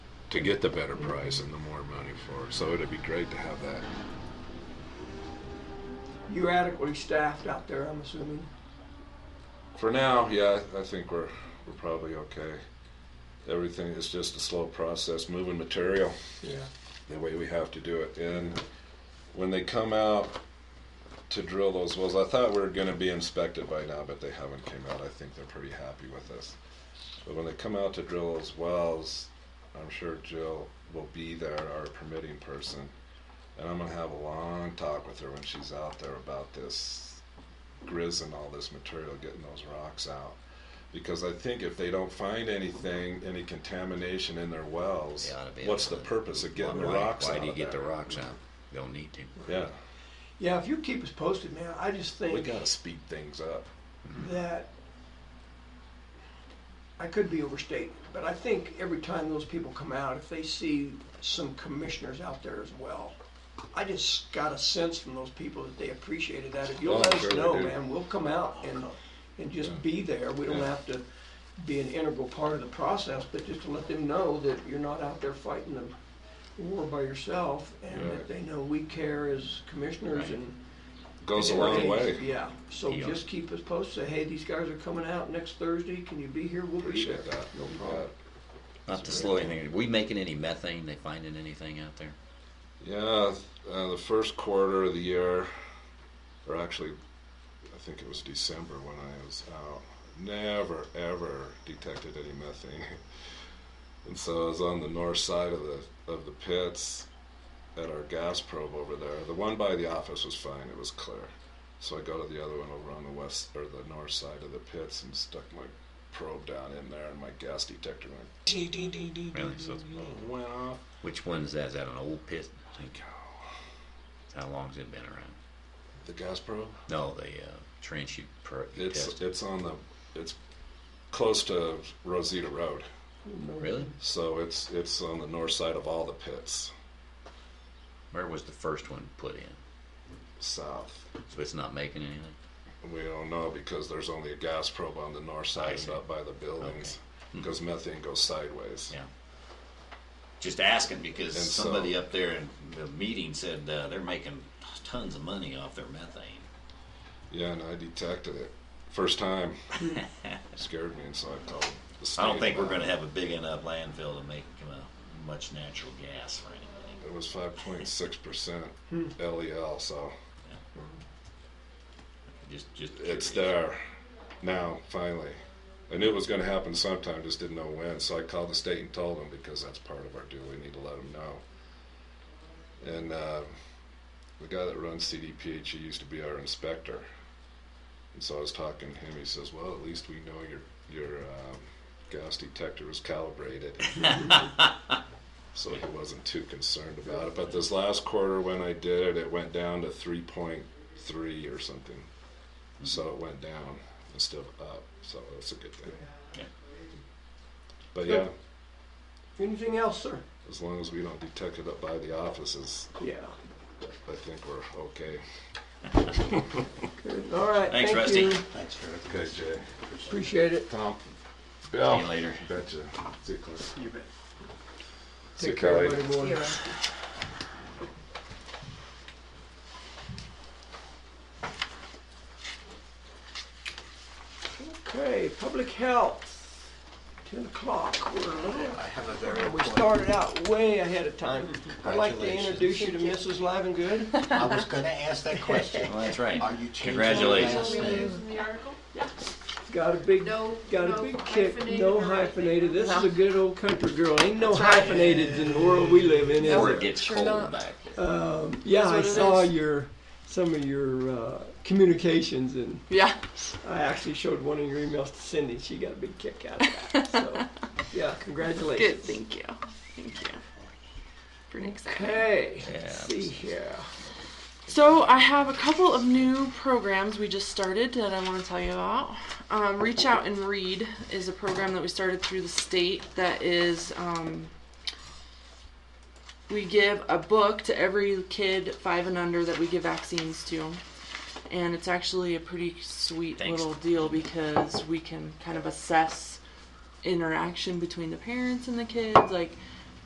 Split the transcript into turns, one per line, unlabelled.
to get the better price and the more money for it. So it'd be great to have that.
You're adequately staffed out there, I'm assuming.
For now, yeah, I think we're we're probably okay. Everything is just a slow process, moving material
Yeah.
the way we have to do it. And when they come out to drill those wells, I thought we were going to be inspected by now, but they haven't came out. I think they're pretty happy with us. But when they come out to drill those wells, I'm sure Jill will be there, our permitting person, and I'm going to have a long talk with her when she's out there about this grizz and all this material, getting those rocks out. Because I think if they don't find anything, any contamination in their wells,
They oughta be
what's the
able to-
purpose of getting the
Why-
rocks
Why
out
do you
of
get the
there?
rocks out? They'll need to.
Yeah,
Yeah, if you keep us posted, man, I just think.
we gotta speed things up.
that I could be overstating, but I think every time those people come out, if they see some commissioners out there as well, I just got a sense from those people that they appreciated that. If you'll
Oh,
let
I'm
us
sure they
know,
do.
man, we'll come out and and just
Yeah.
be there. We don't
Yeah.
have to be an integral part of the process, but just to let them know that you're not out there fighting the war by yourself, and
Right.
that they know we care as commissioners
Right.
and.
Goes a
Yeah,
long
right.
way.
Yeah, so
Yeah.
just keep us posted, say, hey, these guys are coming out next Thursday, can you be here? We'll be there.
Appreciate that.
No problem.
Not to slow anything. Are we making any methane? They finding anything out there?
Yeah, uh, the first quarter of the year, or actually, I think it was December when I was out, never ever detected any methane. And so I was on the north side of the of the pits at our gas probe over there. The one by the office was fine; it was clear. So I go to the other one over on the west or the north side of the pits and stuck my probe down in there, and my gas detector went ding ding ding ding. ding,
Really? So it's-
ding, ding, went off.
Which one's that? Is that an old pit? I think. How long's it been around?
The gas probe.
No, the uh, trench you, per, you
It's
tested.
it's on the it's close to Rosita Road,
Really?
so it's it's on the north side of all the pits,
Where was the first one put in?
south.
So it's not making anything.
We don't know because there's only a gas probe on the north
I
side,
see. Hmm.
not by the buildings, because methane goes sideways.
Yeah. Just asking because
And so-
somebody up there in the meeting said uh, they're making tons of money off their methane.
Yeah, and I detected it first time. Scared me, and so I called. The state
I don't think we're
about
going
it.
to have a big enough landfill to make uh, much natural gas for anything.
It was 5.6% LEL, E so
Just, just
it's
curious.
there now finally i knew it was going to happen sometime just didn't know when so i called the state and told them because that's part of our deal we need to let them know and uh, the guy that runs cdph he used to be our inspector and so i was talking to him he says well at least we know your your um, gas detector was calibrated so he wasn't too concerned about it but this last quarter when i did it it went down to 3.3 or something so it went down instead of up. So that's a good thing.
Yeah.
But yeah,
Good. Anything else, sir?
as long as we don't detect it up by the offices,
Yeah.
I think we're okay.
Good. All right,
Thanks,
thank
Rusty.
you.
Thanks, Eric.
Okay, Jay.
Appreciate it.
Tom.
See you later.
Betcha. See you, Clint.
You bet.
See you,
Take care,
Kelly.
everybody.
Here.
Okay, public health, ten o'clock, we're a little
I have a very
We
important.
started out way ahead of time. I'd like to introduce you to Mrs. Livengood.
I was going to ask that question.
Well, that's right.
Are you changing your
Congratulations.
last name?
From the article?
Got a big,
No-
got a
no
big kick,
hyphenated
no
or anything.
hyphenated. This is
No.
a good old country girl. Ain't no hyphenated in the world we live in,
Before it
is there?
gets
Sure
cold
not.
back there.
Yeah,
That's
I
what it
saw
is.
your, some of your uh, communications and
Yeah.
I actually showed one of your emails to Cindy. She got a big kick out of that. So, yeah,
Good.
congratulations.
Thank you. Thank you. Pretty exciting.
Okay,
Yeah.
let's see here.
So I have a couple of new programs we just started that I want to tell you about. Um, Reach out and read is a program that we started through the state that is. Um, we give a book to every kid five and under that we give vaccines to. And it's actually a pretty sweet
Thanks.
little deal because we can kind of assess interaction between the parents and the kids. Like,